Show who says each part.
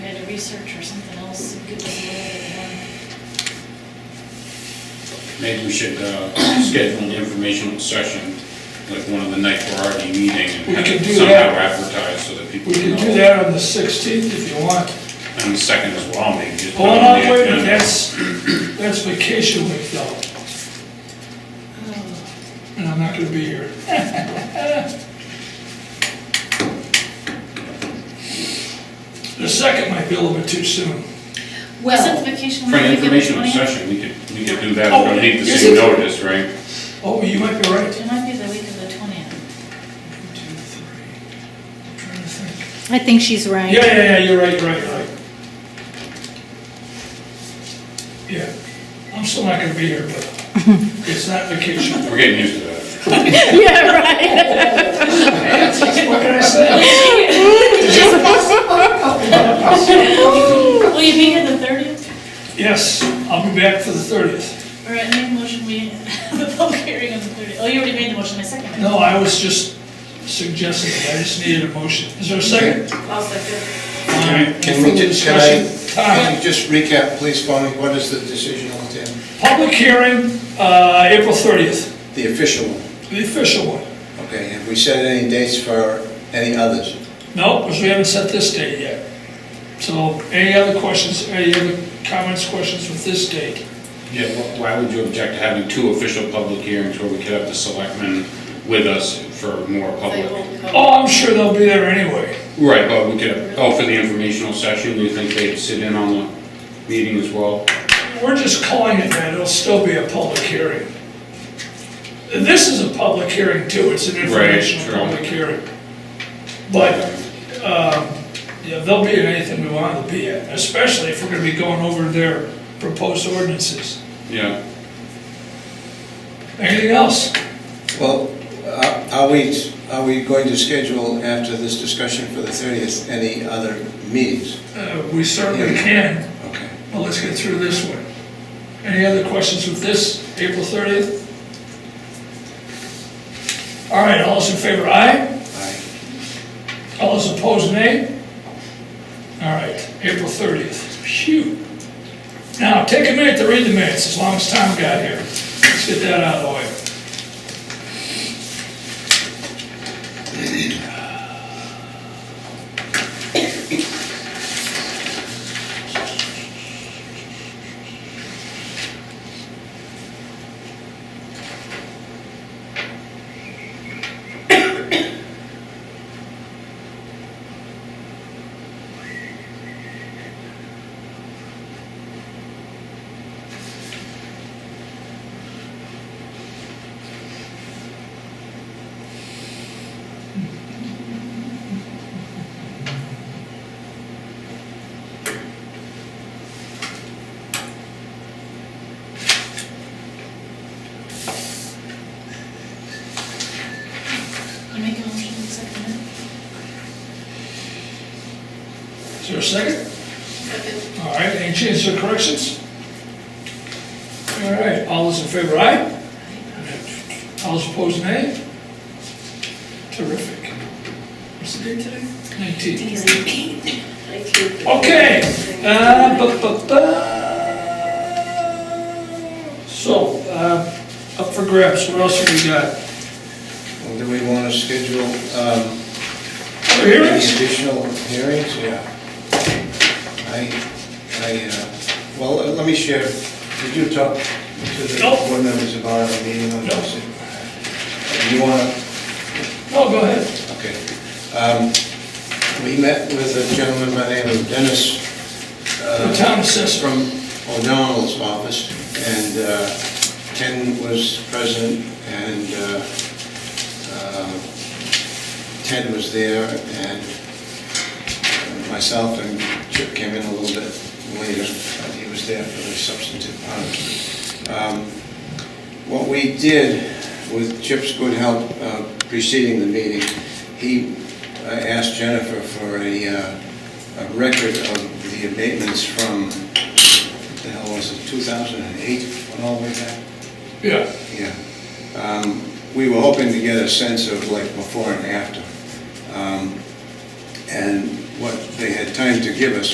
Speaker 1: bit of research or something else, give us a little bit more.
Speaker 2: Maybe we should uh, schedule an informational session, like one of the night for our meeting,
Speaker 3: We
Speaker 2: and have
Speaker 3: could
Speaker 2: it
Speaker 3: do
Speaker 2: somehow
Speaker 3: that.
Speaker 2: advertise so that people
Speaker 3: We
Speaker 2: can
Speaker 3: can
Speaker 2: know.
Speaker 3: do that on the 16th if you want.
Speaker 2: And the second as well, maybe just. put
Speaker 3: Hold
Speaker 2: it on
Speaker 3: on,
Speaker 2: the
Speaker 3: wait a minute,
Speaker 2: agenda.
Speaker 3: that's, that's vacation week though,
Speaker 1: Oh,
Speaker 3: and I'm not gonna be here. The second might be a little bit too soon.
Speaker 1: Isn't
Speaker 4: Well,
Speaker 1: vacation
Speaker 2: For
Speaker 1: week
Speaker 2: an
Speaker 1: the
Speaker 2: informational
Speaker 1: 20th?
Speaker 2: session, we could, we could do that,
Speaker 3: Oh,
Speaker 2: we don't need the
Speaker 3: yes,
Speaker 2: same
Speaker 3: yes.
Speaker 2: notice, right?
Speaker 3: Oh, you might be right.
Speaker 1: It might be the week of the twentieth.
Speaker 3: One, two, three. I'm trying to think.
Speaker 4: I think she's right.
Speaker 3: Yeah, yeah, yeah, you're right, right, right. Yeah, I'm still not gonna be here, but it's not vacation.
Speaker 2: We're getting used to that.
Speaker 4: Yeah, right.
Speaker 3: What can I say?
Speaker 1: Will you be here the thirtieth?
Speaker 3: Yes, I'll be back for the 30th.
Speaker 1: All right, make a motion, we, the public hearing on the thirtieth. Oh, you already made the motion, I second it.
Speaker 3: No, I was just suggesting, it. I just needed a motion. Is there a second?
Speaker 1: I'll second.
Speaker 5: Can we,
Speaker 3: Further
Speaker 5: just- can I,
Speaker 3: discussion?
Speaker 5: can
Speaker 3: Time.
Speaker 5: you just recap, please, for me, what is the decision on the,
Speaker 3: Public hearing, uh, April 30th,
Speaker 5: the official one?
Speaker 3: the official one.
Speaker 5: Okay, have we set any dates for any others?
Speaker 3: No, because we haven't set this date yet. So any other questions, any other comments, questions with this date?
Speaker 2: Yeah, wh- why would you object to having two official public hearings where we could have the selectmen with us for more public?
Speaker 3: Oh, I'm sure they'll be there anyway.
Speaker 2: Right, but we could, oh, for the informational session, do you think they'd sit in on the meeting as well?
Speaker 3: We're just calling it that, it'll still be a public hearing. And This is a public hearing too, it's an
Speaker 2: true.
Speaker 3: informational public hearing. But, um, yeah, they'll be at anything we want them to be at, especially if we're gonna be going over their proposed ordinances.
Speaker 2: Yeah.
Speaker 3: Anything else?
Speaker 5: Well, uh, are we, are we going to schedule after this discussion for the 30th, any other meetings?
Speaker 3: Uh, we certainly can,
Speaker 5: Okay.
Speaker 3: but let's get through this one. Any other questions with this, April thirtieth? All right, all those in favor, aye?
Speaker 5: Aye.
Speaker 3: All those opposed, nay? All right, April 30th. Phew. Now, take a minute to read the minutes, as long as Tom got here. Let's get that out of the way.
Speaker 1: You make a motion, we second it.
Speaker 3: Is there a second? All right, any changes or corrections? All right, all those in favor, aye? All those opposed, nay? Terrific. What's the date today? 19th.
Speaker 1: He's like,
Speaker 3: Okay. uh, bu- bu- bu- So, uh, up for grabs, what else have we got?
Speaker 5: Well, do we want to schedule um,
Speaker 3: Other
Speaker 5: any
Speaker 3: hearings?
Speaker 5: additional hearings? Yeah. I, I, uh, well, let me share, did you talk to the
Speaker 3: Nope.
Speaker 5: board members about our meeting on
Speaker 3: Nope.
Speaker 5: this? You want to
Speaker 3: No, go ahead.
Speaker 5: Okay. Um, We met with a gentleman by the name of Dennis
Speaker 3: The
Speaker 5: uh,
Speaker 3: town assessor.
Speaker 5: from O'Donnell's office, and uh, Ken was present, and uh, um, Ted was there, and myself and Chip came in a little bit later, but he was there for the substantive part. Um, What we did with Chip's good help uh, preceding the meeting, he uh, asked Jennifer for a, uh, a record of the abatements from, what the hell was it, 2008, went all the way back?
Speaker 3: Yeah.
Speaker 5: Yeah. Um, We were hoping to get a sense of like before and after. Um, And what they had time to give us